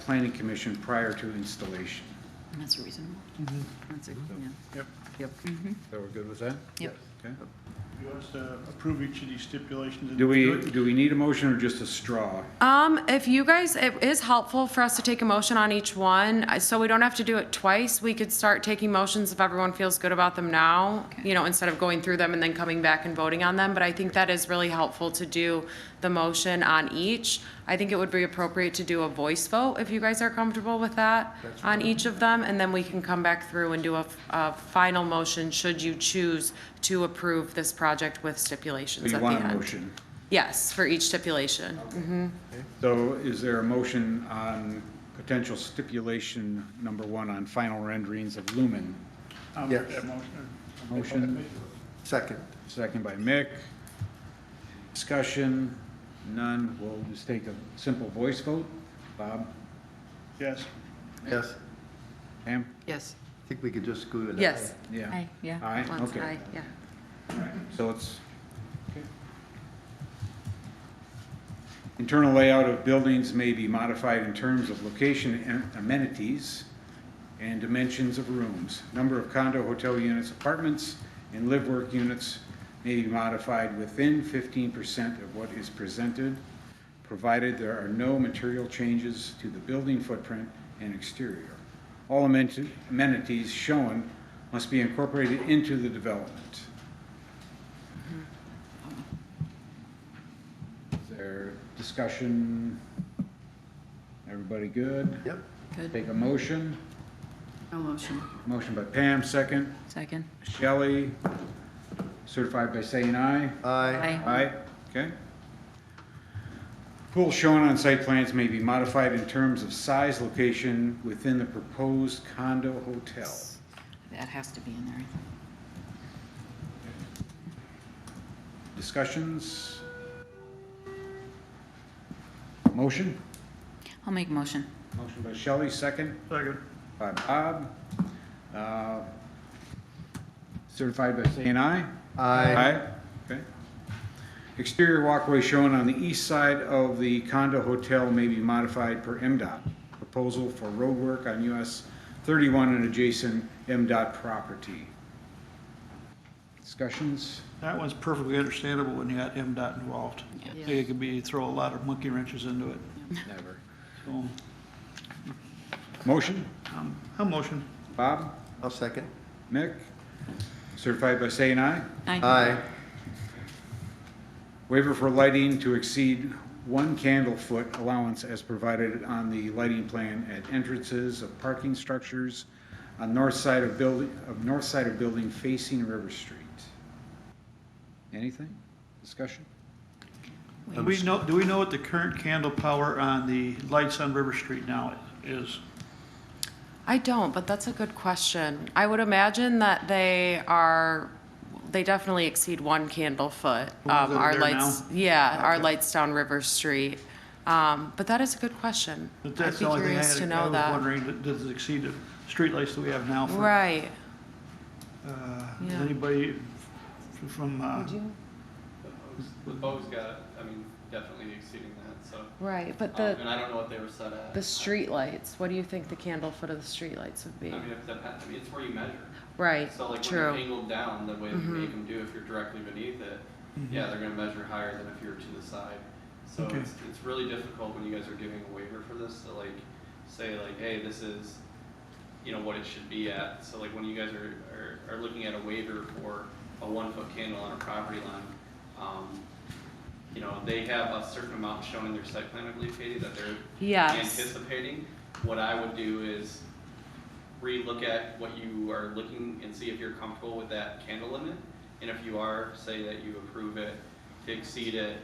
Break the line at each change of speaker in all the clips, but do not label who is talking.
planning commission prior to installation.
That's reasonable. That's a, yeah,
Yep.
yep,
So we're good with that?
yep.
Okay.
You want us to approve each of these stipulations?
Do we,
individually?
do we need a motion or just a straw?
Um, if you guys, it is helpful for us to take a motion on each one, uh, so we don't have to do it twice. We could start taking motions if everyone feels good about them now, you know, instead of going through them and then coming back and voting on them. But I think that is really helpful to do the motion on each. I think it would be appropriate to do a voice vote if you guys are comfortable with that on each of them. And then we can come back through and do a, f- a final motion should you choose to approve this project with
So
stipulations
you
at the
want a
end.
motion?
Yes, for each stipulation. Mm-hmm.
So is there a motion on potential stipulation number one on final renderings of Lumen?
I'll make
Yes.
that motion.
Motion,
Second.
second by Mick. Discussion, none. We'll just take a simple voice vote. Bob,
Yes,
Yes.
Pam?
Yes.
I think we could just go to that.
Yes.
Yeah.
yeah.
Eh,
Aye,
Once,
okay.
aye, yeah.
So it's. Internal layout of buildings may be modified in terms of location and amenities and dimensions of rooms. Number of condo, hotel units, apartments, and live-work units may be modified within fifteen percent of what is presented, provided there are no material changes to the building footprint and exterior. All amen- amenities shown must be incorporated into the development. Is there discussion? Everybody good?
Yep.
Good,
Take a motion.
no motion.
Motion by Pam, second.
Second.
Shelley, certified by saying aye.
Aye.
Aye.
Aye, okay. Pool shown on site plans may be modified in terms of size, location within the proposed condo hotel.
That has to be in there.
Discussions? Motion?
I'll make a motion.
Motion by Shelley, second.
second.
by Bob. Uh, Certified by saying aye?
Aye.
Okay. Exterior walkway shown on the east side of the condo hotel may be modified per MDOT. Proposal for roadwork on US 31 and adjacent MDOT property. Discussions?
That one's perfectly understandable when you got MDOT involved. I think it could be, throw a lot of monkey wrenches into it.
Never.
So,
Motion?
um, I'll motion.
Bob?
I'll second.
Mick? Certified by saying aye?
Aye.
Waiver for lighting to exceed one candle foot allowance as provided on the lighting plan at entrances of parking structures on north side of building, of north side of building facing River Street. Anything? Discussion?
Do we know, do we know what the current candle power on the lights on River Street now is?
I don't, but that's a good question. I would imagine that they are, they definitely exceed one candle foot.
The ones
um,
that are
our
there
lights-
now?
Yeah, our lights down River Street. Um, but that is a good question.
But
I'd
that's
be
the only thing I
curious to
had, I
know
was
that.
wondering, does it exceed the streetlights that we have now? for-
Right,
Uh, does
Yeah.
Anybody f- from, uh,
Bo's got, I mean, definitely exceeding that, so.
right, but
Um,
the,
and I don't know what they were set at.
the streetlights, what do you think the candle foot of the streetlights would
I
be?
mean, if the, I mean, it's where you measure.
Right,
So like when they're
true, Mm-hmm.
angled down, the way that you make them do, if you're directly beneath it, yeah, they're gonna measure higher than if you're to the side. So
Okay.
it's, it's really difficult when you guys are giving a waiver for this to like, say like, hey, this is, you know, what it should be at. So like when you guys are, are, are looking at a waiver for a one foot candle on a property line, um, you know, they have a certain amount shown in their site plan, I believe, Katie, that they're
yes.
anticipating. What I would do is relook at what you are looking and see if you're comfortable with that candle limit. And if you are, say that you approve it to exceed it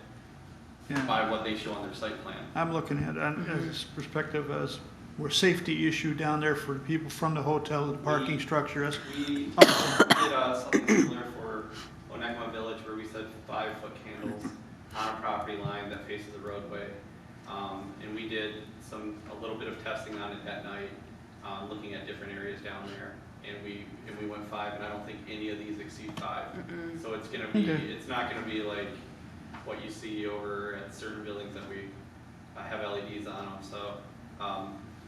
yeah.
by what they show on their site plan.
I'm looking at, on this perspective as, we're safety issue down there for people from the hotel, the parking structure, that's
We did uh, something similar for Onakma Village where we said five foot candles on a property line that faces the roadway. Um, and we did some, a little bit of testing on it that night, uh, looking at different areas down there. And we, and we went five, and I don't think any of these exceed five. So it's gonna be,
Okay.
it's not gonna be like E what you see over at certain buildings that we uh, have LEDs on them, so, um,